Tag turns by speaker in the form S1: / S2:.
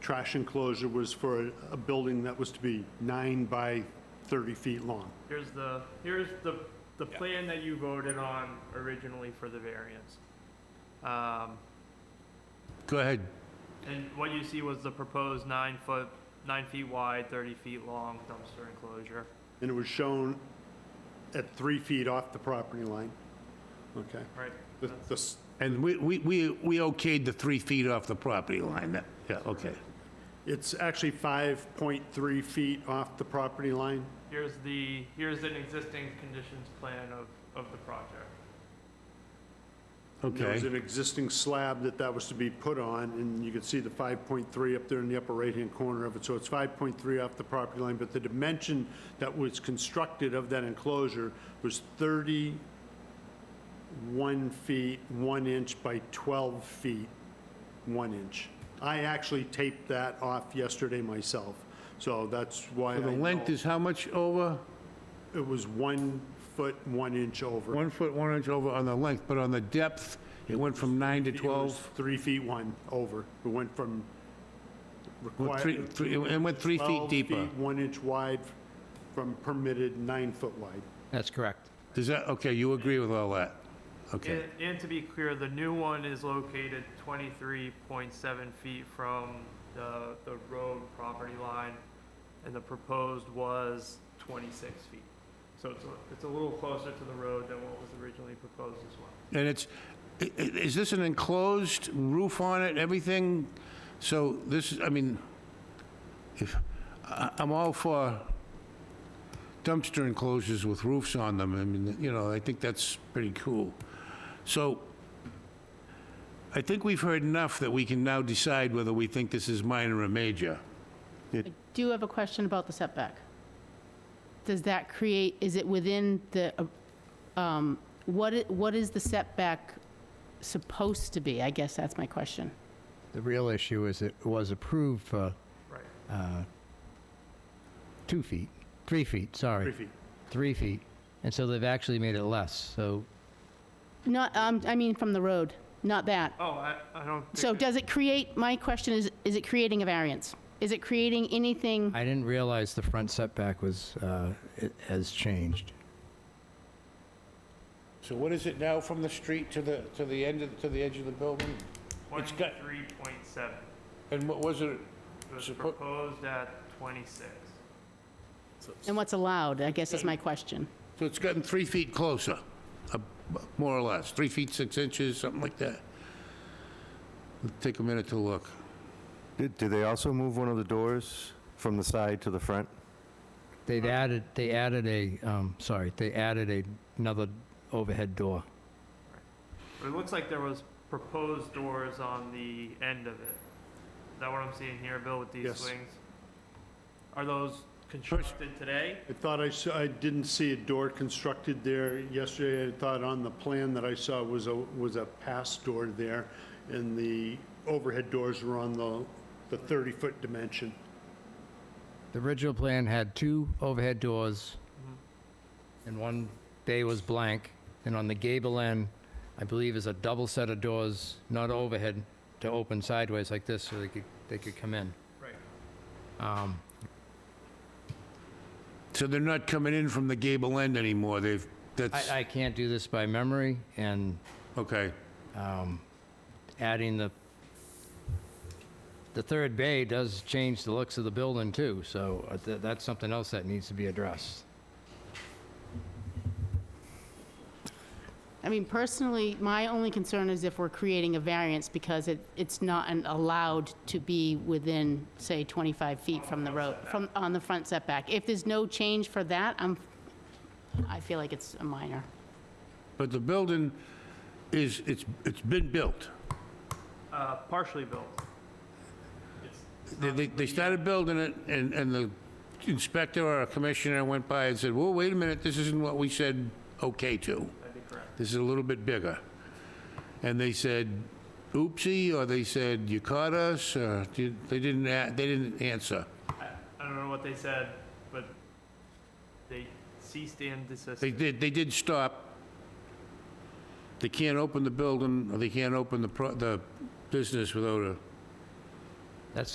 S1: trash enclosure was for a- a building that was to be nine by 30 feet long.
S2: Here's the, here's the, the plan that you voted on originally for the variance. Um,
S3: Go ahead.
S2: and what you see was the proposed nine foot, nine feet wide, thirty feet long dumpster enclosure.
S1: And it was shown at three feet off the property line. Okay.
S2: Right.
S1: The- the s-
S3: And we, we, we we okayed the three feet off the property line. That- Yeah, okay.
S1: It's actually 5.3 feet off the property line.
S2: Here's the, here's an existing conditions plan of, of the project.
S1: There was an
S3: Okay.
S1: existing slab that that was to be put on, and you could see the 5.3 up there in the upper right-hand corner of it. So it's 5.3 off the property line, but the dimension that was constructed of that enclosure was 31 feet, 1 inch by 12 feet, 1 inch. I actually taped that off yesterday myself, so that's why I
S3: So the length
S1: know
S3: is how much over?
S1: It was 1 foot, 1 inch over.
S3: One foot, one inch over on the length, but on the depth, it went from nine to
S1: It was
S3: 12?
S1: Three feet one over. We went from
S3: Well, three-
S1: required,
S3: three- It went three
S1: 12
S3: feet deeper.
S1: feet, one inch wide from permitted nine foot wide.
S4: That's correct.
S3: Does that, okay, you agree with all that? Okay.
S2: And, and to be clear, the new one is located twenty-three point seven feet from the, the road property line, and the proposed was twenty-six feet. So it's, a- it's a little closer to the road than what was originally proposed as well.
S3: And it's, i- i- is this an enclosed roof on it, everything? So this, I mean, if, I- I'm all for dumpster enclosures with roofs on them. I mean, you know, I think that's pretty cool. So I think we've heard enough that we can now decide whether we think this is minor or major.
S5: I do have a question about the setback. Does that create, is it within the, uh, um, what, i- what is the setback supposed to be? I guess that's my question.
S4: The real issue is it was approved for
S2: Right.
S4: uh, two feet, three feet, sorry.
S1: Three feet.
S4: Three feet. And so they've actually made it less, so
S5: Not, um, I mean from the road, not that.
S2: Oh, I, I don't. think
S5: So
S2: that-
S5: does it create, my question is, is it creating a variance? Is it creating anything?
S4: I didn't realize the front setback was, uh, it has changed.
S3: So what is it now from the street to the, to the end, of- to the edge of the building? It's got-
S2: Twenty-three point seven.
S3: And what was it?
S2: It was
S3: Suppo-
S2: proposed at twenty-six.
S5: And what's allowed, I guess is my question.
S3: So it's gotten three feet closer, uh, more or less, three feet, six inches, something like that. Take a minute to look.
S6: Did, did they also move one of the doors from the side to the front?
S4: They've added, they added a, um, sorry, they added a- another overhead door.
S2: But it looks like there was proposed doors on the end of it. Is that what I'm seeing here, Bill, with these
S1: Yes.
S2: swings? Are those constructed today?
S1: I thought I saw, I didn't see a door constructed there yesterday. I thought on the plan that I saw was a, was a pass door there, and the overhead doors were on the, the 30-foot dimension.
S4: The original plan had two overhead doors, and one bay was blank, and on the gable end, I believe is a double set of doors, not overhead, to open sideways like this, so they could, they could come in.
S2: Right.
S4: Um,
S3: So they're not coming in from the gable end anymore, they've, that's,
S4: I, I can't do this by memory, and
S3: okay.
S4: um, adding the, the third bay does change the looks of the building too, so uh, th- that's something else that needs to be addressed.
S5: I mean, personally, my only concern is if we're creating a variance because it, it's not an- allowed to be within, say, 25 feet from the road, from, on the front setback. If there's no change for that, I'm, I feel like it's a minor.
S3: But the building is, it's, it's been built.
S2: Uh, partially built. It's
S3: They, they- they started building it, and, and the inspector or commissioner went by and said, well, wait a minute, this isn't what we said okay to.
S2: That'd be correct.
S3: This is a little bit bigger. And they said, oopsie, or they said, you caught us, or did- they didn't, a- they didn't answer.
S2: I, I don't know what they said, but they ceased and
S3: They
S2: desisted.
S3: did, they did stop. They can't open the building, or they can't open the, pro- the business without a